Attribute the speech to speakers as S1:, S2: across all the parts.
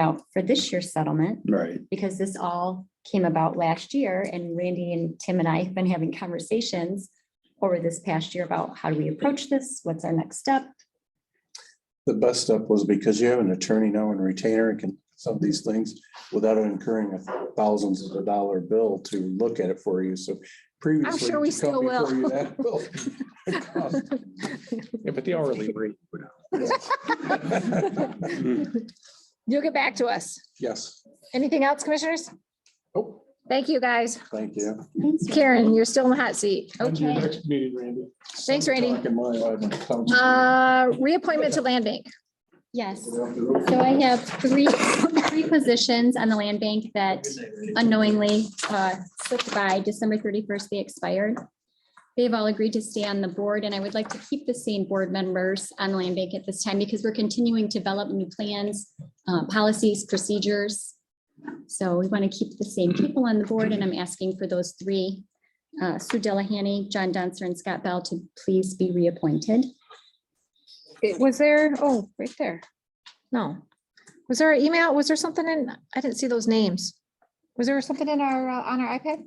S1: out for this year's settlement,
S2: Right,
S1: because this all came about last year and Randy and Tim and I have been having conversations over this past year about how do we approach this? What's our next step?
S3: The best step was because you have an attorney now and retainer and can some of these things without incurring thousands of dollar bill to look at it for you. So previously.
S4: sure we
S3: to come
S4: still will.
S3: before you, that will- it cost.
S5: Yeah, but the hourly rate. would-
S4: You'll get back to us.
S3: Yes.
S4: Anything else, commissioners?
S3: Oh,
S4: Thank you, guys.
S3: thank you.
S1: Thanks, Randy.
S4: Karen, you're still in the hot seat. Okay.
S5: Next meeting, Randy.
S4: Thanks, Randy.
S3: Talking my life.
S4: Uh, reappointment to land bank.
S1: Yes, so I have three, three positions on the land bank that unknowingly uh, slipped by December thirty-first, they expired. They've all agreed to stay on the board, and I would like to keep the same board members on the land bank at this time because we're continuing to develop new plans, uh, policies, procedures. So we want to keep the same people on the board, and I'm asking for those three, uh, Sue Delahanny, John Dunster, and Scott Bell to please be reappointed.
S4: It was there, oh, right there. No. Was there an email? Was there something in, I didn't see those names. Was there something in our, uh, on our iPad?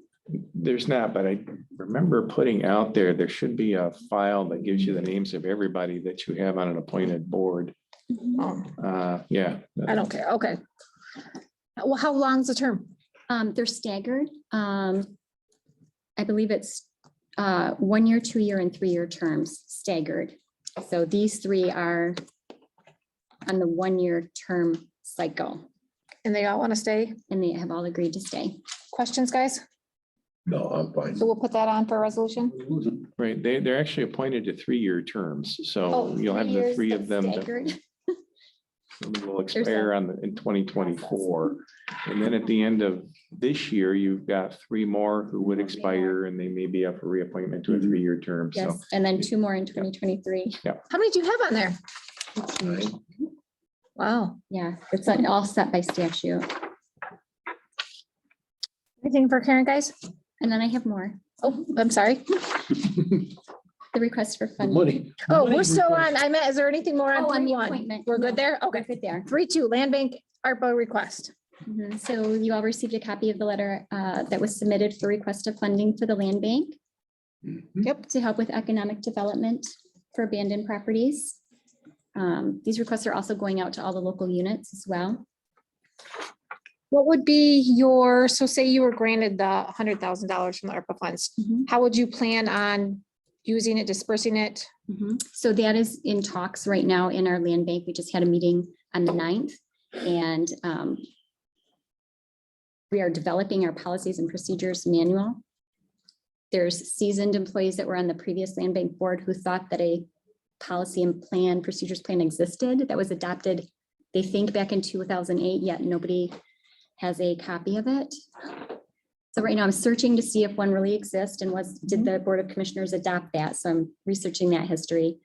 S5: There's not, but I remember putting out there, there should be a file that gives you the names of everybody that you have on an appointed board.
S4: Oh,
S5: Uh, yeah.
S4: I don't care. Okay. Well, how long's the term?
S1: Um, they're staggered. Um, I believe it's, uh, one year, two year and three year terms staggered. So these three are on the one year term cycle
S4: And they all want to stay?
S1: and they have all agreed to stay.
S4: Questions, guys?
S3: No, I'm fine.
S4: So we'll put that on for resolution.
S5: Right, they, they're actually appointed to three-year terms, so
S1: Oh,
S5: you'll have the
S1: years,
S5: three
S1: but
S5: of them that
S1: staggered.
S5: will expire on, the- in twenty twenty-four. And then at the end of this year, you've got three more who
S1: Oh,
S5: would expire and they may be up for reappointment to a
S3: Mhm.
S5: three-year term, so.
S1: Yes, and then two more in twenty twenty-three.
S4: How many do you have on there? Wow.
S1: Yeah, it's all set by statute.
S4: Anything for Karen, guys?
S1: And then I have more,
S4: Oh, I'm sorry.
S1: the request for funding.
S6: Money.
S4: Oh,
S6: money
S4: we're still
S6: request.
S4: on, I meant, is there anything more on
S1: Oh, on
S4: three
S1: the
S4: one?
S1: appointment.
S4: We're
S1: No,
S4: good there?
S1: we're
S4: Okay.
S1: Good there.
S4: Three two, land bank ARPA request.
S1: Mhm. So you all received a copy of the letter uh, that was submitted for request of funding for the land bank. Yep. To help with economic development for abandoned properties. Um, These requests are also going out to all the local units as well.
S4: What would be your, so say you were granted the hundred thousand dollars from the ARPA funds,
S1: Mhm,
S4: how would you plan on using it, dispersing it?
S1: mhm. So that is in talks right now in our land bank. We just had a meeting on the 9th and um, we are developing our policies and procedures manual. There's seasoned employees that were on the previous land bank board who thought that a policy and plan, procedures plan existed that was adopted, they think back in two thousand eight, yet nobody has a copy of it. So right now I'm searching to see if one really exists and was, did the Board of Commissioners adopt that? So I'm researching that history.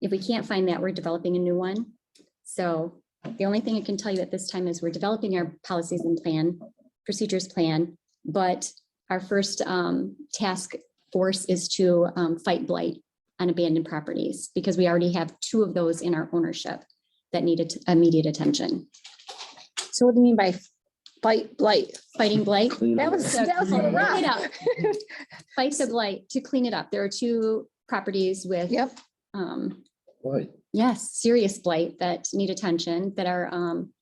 S1: If we can't find that, we're developing a new one. So the only thing I can tell you at this time is we're developing our policies and plan, procedures plan, but our first um, task force is to um, fight blight on abandoned properties, because we already have two of those in our ownership that needed immediate attention.
S4: So what do you mean by blight, blight?
S1: Fighting blight,
S6: Clean
S4: That
S6: up.
S4: was, that was
S1: Clean it
S4: rough.
S1: up. fight the blight, to clean it up. There are two properties with,
S4: Yep,
S1: um,
S6: Why?
S1: Yes, serious blight that need attention, that are um,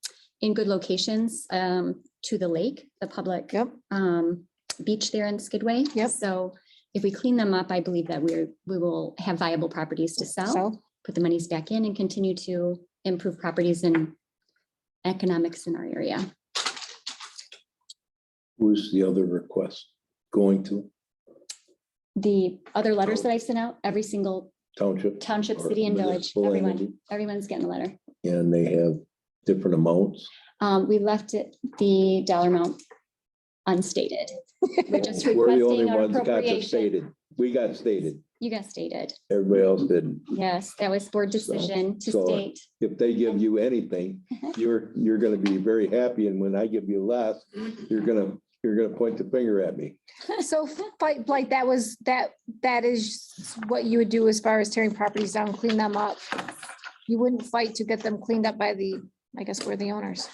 S1: in good locations um, to the lake, the public
S4: yep.
S1: um, beach there in Skidway.
S4: Yep.
S1: So if we clean them up, I believe that we're, we will have viable properties to sell,
S4: So,
S1: put the monies back in and continue to improve properties and economics in our area.
S6: Who's the other request going to?
S1: The other letters that I sent out, every single
S6: Township?
S1: township,
S6: or
S1: city and village,
S6: municipal
S1: everyone,
S6: entity?
S1: everyone's getting a letter.
S6: And they have different amounts.
S1: Um, we left it, the dollar amount unstated. We're just
S6: We're the only
S1: requesting our
S6: ones that got
S1: appropriation.
S6: it stated. We got stated.
S1: You got stated.
S6: Everybody else didn't.
S1: Yes, that was board decision to
S6: so-
S1: state.
S6: If they give you anything, you're, you're gonna be very happy. And when I give you less, you're gonna, you're gonna point the finger at me.
S4: so fight, blight, that was, that, that is what you would do as far as tearing properties down, clean them up. You wouldn't fight to get them cleaned up by the, I guess, we're the owners.